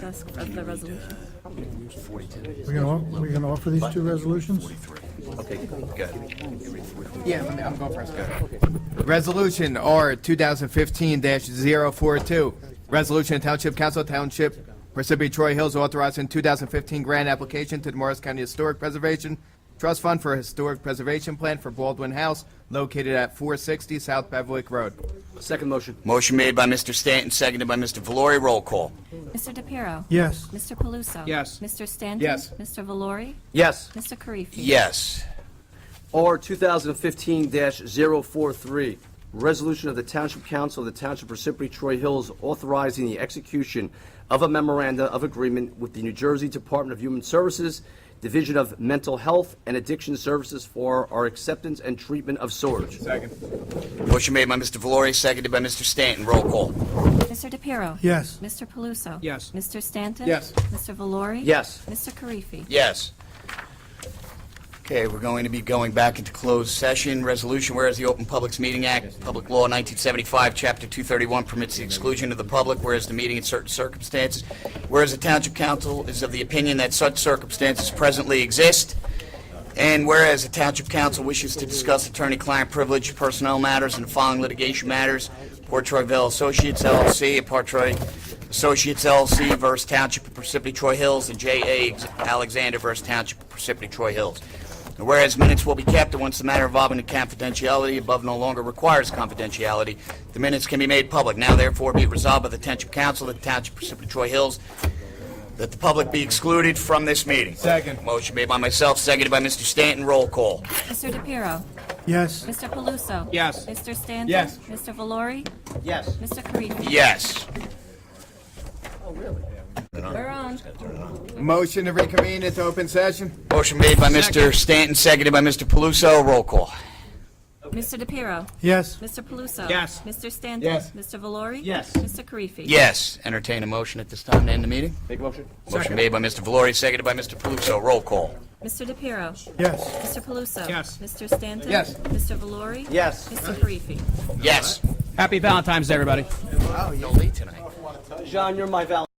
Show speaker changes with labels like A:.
A: desk of the resolution.
B: We're gonna, off- we're gonna offer these two resolutions?
C: Yeah, let me, I'm going first. Go ahead. Resolution R 2015-042, resolution of Township Council Township Parsippany Troy Hills authorizing 2015 grant application to the Morris County Historic Preservation Trust Fund for a Historic Preservation Plan for Baldwin House located at 460 South Beverwick Road.
D: Second motion.
E: Motion made by Mr. Stanton, seconded by Mr. Valori. Roll call.
A: Mr. DePiero.
B: Yes.
A: Mr. Paluso.
D: Yes.
A: Mr. Stanton.
C: Yes.
A: Mr. Valori.
D: Yes.
A: Mr. Karifi.
E: Yes.
D: R 2015-043, resolution of the Township Council of the Township of Parsippany Troy Hills authorizing the execution of a memoranda of agreement with the New Jersey Department of Human Services, Division of Mental Health and Addiction Services for our acceptance and treatment of storage.
E: Motion made by Mr. Valori, seconded by Mr. Stanton. Roll call.
A: Mr. DePiero.
B: Yes.
A: Mr. Paluso.
D: Yes.
A: Mr. Stanton.
C: Yes.
A: Mr. Valori.
D: Yes.
A: Mr. Karifi.
E: Yes. Okay, we're going to be going back into closed session. Resolution, whereas the Open Publics Meeting Act, Public Law 1975, Chapter 231 permits the exclusion of the public, whereas the meeting in certain circumstances, whereas the Township Council is of the opinion that such circumstances presently exist, and whereas the Township Council wishes to discuss attorney-client privilege, personnel matters, and the following litigation matters, Portroyville Associates LLC, and Portroy Associates LLC versus Township of Parsippany Troy Hills, and J.A. Alexander versus Township of Parsippany Troy Hills. And Whereas minutes will be kept, and once the matter involving the confidentiality above no longer requires confidentiality, the minutes can be made public. Now therefore be it resolved by the Township Council of the Township of Parsippany Troy Hills that the public be excluded from this meeting. Second. Motion made by myself, seconded by Mr. Stanton. Roll call.
A: Mr. DePiero.
B: Yes.
A: Mr. Paluso.
C: Yes.
A: Mr. Stanton.
C: Yes.
A: Mr. Valori.
C: Yes.
A: Mr. Karifi.
E: Yes.
A: We're on.
C: Motion to reconvene into open session?
E: Motion made by Mr. Stanton, seconded by Mr. Paluso. Roll call.
A: Mr. DePiero.
B: Yes.
A: Mr. Paluso.
C: Yes.
A: Mr. Stanton.
C: Yes.
A: Mr. Valori.
C: Yes.
A: Mr. Karifi.
E: Yes. Entertain a motion at this time to end the meeting.
D: Make a motion.
E: Motion made by Mr. Valori, seconded by Mr. Paluso. Roll call.
A: Mr. DePiero.
B: Yes.
A: Mr. Paluso.
F: Yes.
A: Mr. Stanton.
C: Yes.
A: Mr. Valori.
D: Yes.
A: Mr. Karifi.
E: Yes.
F: Happy Valentine's Day, everybody.
E: No late tonight.
D: John, you're my val.